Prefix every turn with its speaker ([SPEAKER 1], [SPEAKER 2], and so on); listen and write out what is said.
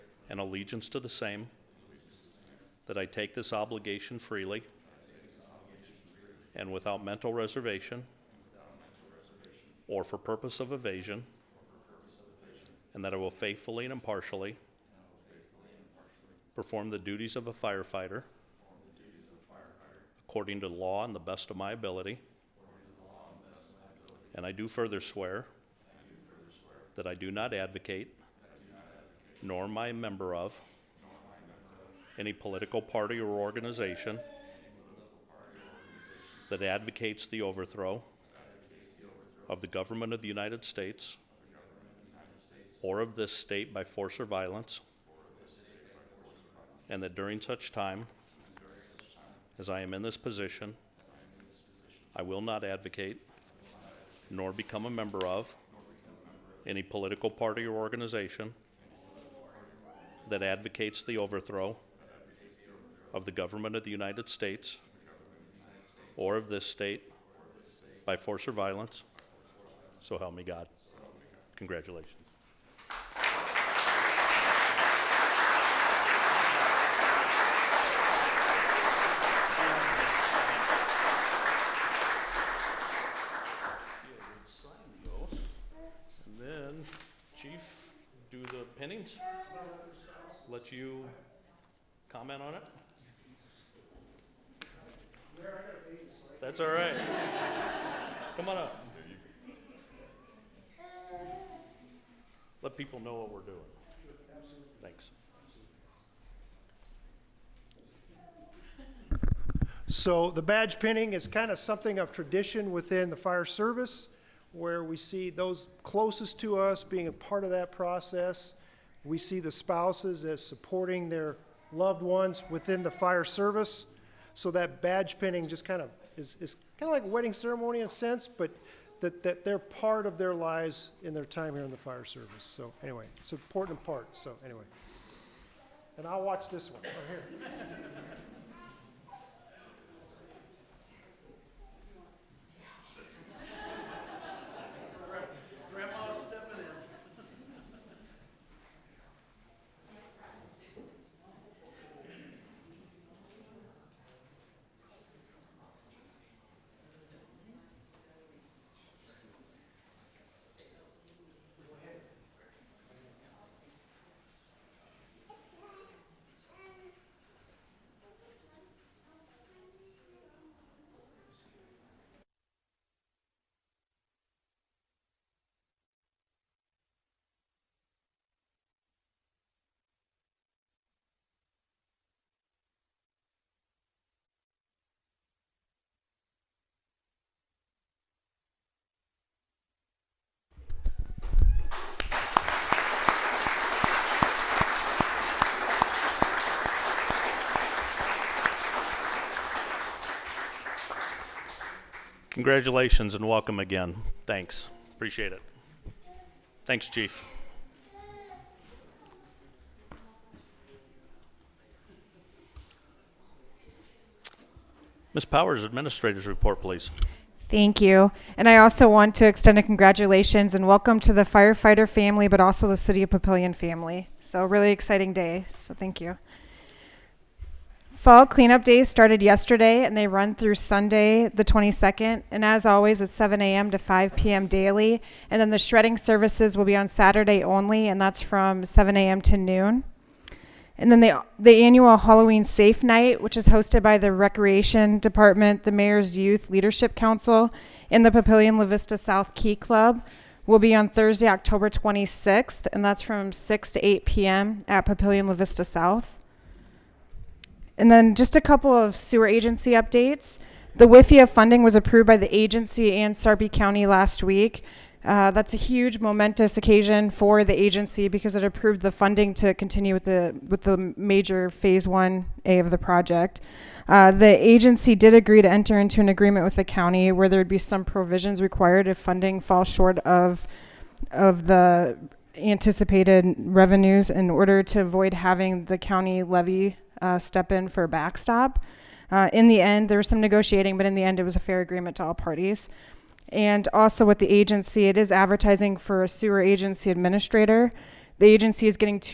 [SPEAKER 1] and allegiance to the same, that I take this obligation freely and without mental reservation or for purpose of evasion, and that I will faithfully and impartially perform the duties of a firefighter according to law and the best of my ability. And I do further swear that I do not advocate nor am I a member of any political party or organization that advocates the overthrow of the government of the United States or of this state by force or violence, and that during such time as I am in this position, I will not advocate nor become a member of any political party or organization that advocates the overthrow of the government of the United States or of this state by force or violence. So help me God. Congratulations. Sign the oath, and then Chief, do the pinnings let you comment on it? That's all right. Come on up. Let people know what we're doing. Thanks.
[SPEAKER 2] So the badge pinning is kind of something of tradition within the fire service, where we see those closest to us being a part of that process. We see the spouses as supporting their loved ones within the fire service. So that badge pinning just kind of is, is kind of like a wedding ceremony in a sense, but that, that they're part of their lives in their time here in the fire service. So anyway, it's an important part, so anyway. And I'll watch this one, right here.
[SPEAKER 1] Congratulations and welcome again. Thanks. Appreciate it. Thanks, Chief. Ms. Powers, Administrator's Report, please.
[SPEAKER 3] Thank you. And I also want to extend a congratulations and welcome to the firefighter family, but also the City of Papillion family. So, really exciting day. So, thank you. Fall cleanup days started yesterday and they run through Sunday, the 22nd. And as always, it's 7 a.m. to 5 p.m. daily. And then the shredding services will be on Saturday only, and that's from 7 a.m. to noon. And then the, the annual Halloween Safe Night, which is hosted by the Recreation Department, the Mayor's Youth Leadership Council, and the Papillion La Vista South Key Club, will be on Thursday, October 26th, and that's from 6 to 8 p.m. at Papillion La Vista South. And then just a couple of sewer agency updates. The WIFIA funding was approved by the agency and Sarpy County last week. Uh, that's a huge momentous occasion for the agency because it approved the funding to continue with the with the major phase one A of the project. Uh, the agency did agree to enter into an agreement with the county where there would be some provisions required if funding falls short of of the anticipated revenues in order to avoid having the county levy uh, step in for a backstop. Uh, in the end, there was some negotiating, but in the end, it was a fair agreement to all parties. And also with the agency, it is advertising for a sewer agency administrator. The agency is getting two.